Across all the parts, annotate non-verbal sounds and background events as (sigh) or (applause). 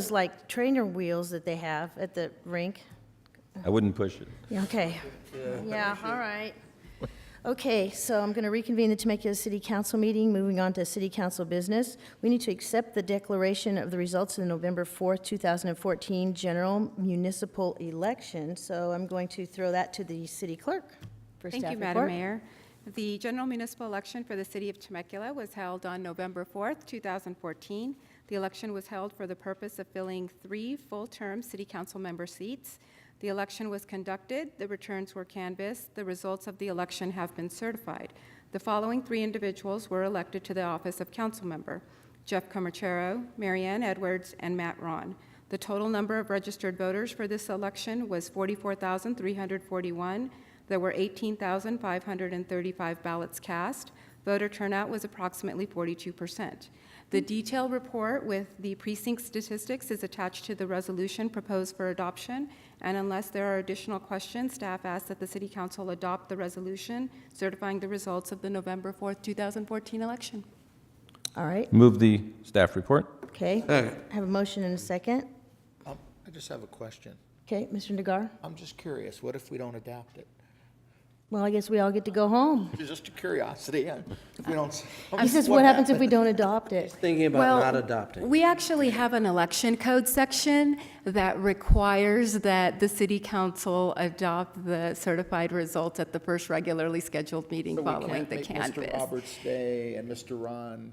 Those like trainer wheels that they have at the rink? I wouldn't push it. Yeah, okay. Yeah, all right. Okay, so I'm going to reconvene the Temecula City Council meeting, moving on to city council business. We need to accept the declaration of the results of the November 4th, 2014 general municipal election. So I'm going to throw that to the city clerk for staff Thank you, report. Madam Mayor. The general municipal election for the city of Temecula was held on November 4th, 2014. The election was held for the purpose of filling three full-term city council member seats. The election was conducted, the returns were canvassed, the results of the election have been certified. The following three individuals were elected to the office of council member: Jeff Comerchero, Marianne Edwards, and Matt Ron. The total number of registered voters for this election was 44,341. There were 18,535 ballots cast. Voter turnout was approximately 42%. The detailed report with the precinct statistics is attached to the resolution proposed for adoption, and unless there are additional questions, staff asks that the City Council adopt the resolution certifying the results of the November 4th, 2014 election. All right, Move the staff report. okay. Have a motion and a second. Um, I just have a question. Okay, Mr. Nagar? I'm just curious, what if we don't adopt it? Well, I guess we all get to go home. Just a curiosity, yeah. If we don't. (laughs) He says, Uh, what happens if we don't adopt it? Thinking Well, about not adopting. We actually have an election code section that requires that the city council adopt the certified results at the first regularly scheduled meeting So we following can't the make Mr. canvass. Roberts stay and Mr. Ron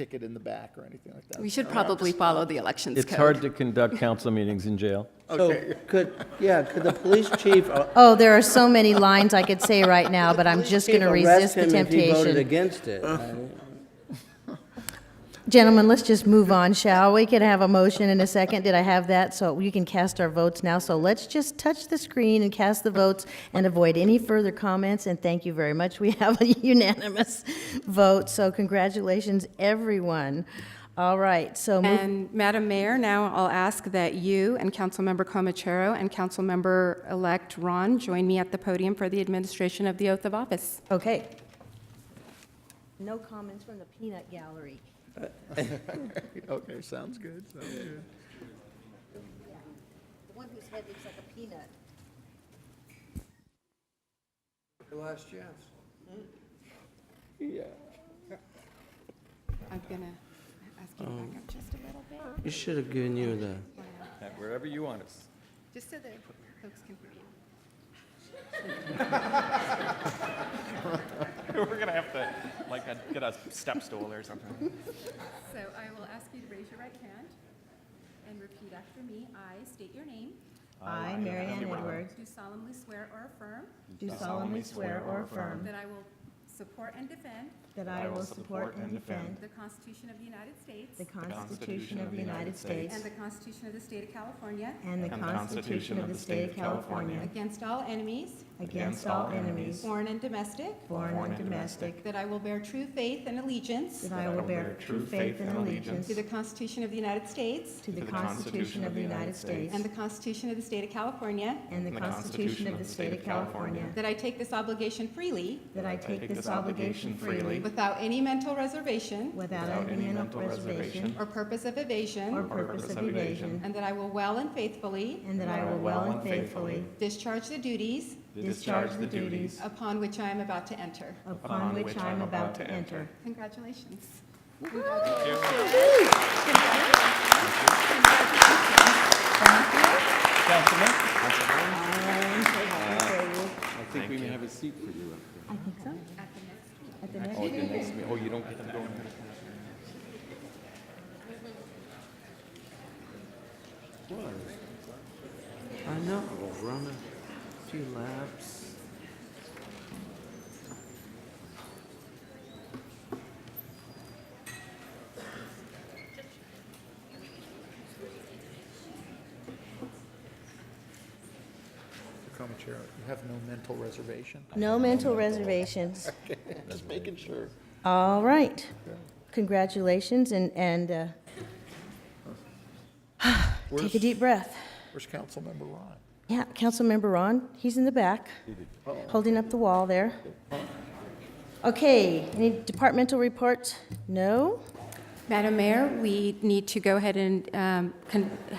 kick it in the back or anything like that. We should probably follow the elections code. It's hard to conduct council meetings in jail. (laughs) So could, yeah, could the police chief, uh, Oh, there are so many lines I could say right now, but I'm (laughs) just going chief to arrest resist the him if he voted temptation. against it? I- Gentlemen, let's just move on, shall we? Can I have a motion in a second? Did I have that? So you can cast our votes now. So let's just touch the screen and cast the votes and avoid any further comments. And thank you very much. We have a (laughs) unanimous vote, so congratulations, everyone. All right, so move And Madam Mayor, now I'll ask that you and Councilmember Comachero and Councilmember-elect Ron join me at the podium for the administration of the oath of office. Okay. No comments from the peanut gallery. (laughs) Okay, sounds good, sounds good. The one whose head looks like a peanut. I'm gonna ask you to back up just a little bit, You should have given you the, Wherever you want us. just so that folks can hear you. (laughs) We're gonna have to, like, a- get a step stool or something. So I will ask you to raise your right hand and repeat after me. I state your name. I, Mary Ann Edwards, Do solemnly swear or affirm do solemnly swear or affirm that I will support and defend that I will support and defend the Constitution of the United States the Constitution of the United States and the Constitution of the State of California and the Constitution of the State of California against all enemies, against all enemies, foreign and domestic, foreign and domestic, that I will bear true faith and allegiance that I will bear true faith and allegiance to the Constitution of the United States to the Constitution of the United States and the Constitution of the State of California, and the Constitution of the State of California, that I take this obligation freely that I take this obligation freely without any mental reservation without any mental reservation or purpose of evasion, or purpose of evasion, and that I will well and faithfully And that I will well and faithfully discharge the duties discharge the duties upon which I am about to enter. upon which I am about to enter. Congratulations. I think we may have a seat for you. I think so. At the next meeting. Oh, you don't get to go. I know, run a few laps. Comchair, you have no mental reservation? No mental (laughs) reservations. Just making sure. All right. Congratulations and, and uh, take a Where's- deep breath. Where's Councilmember Ron? Yeah, Councilmember Ron, he's in the back, holding up the wall there. Okay, any departmental reports? No? Madam Mayor, we need to go ahead and um, con-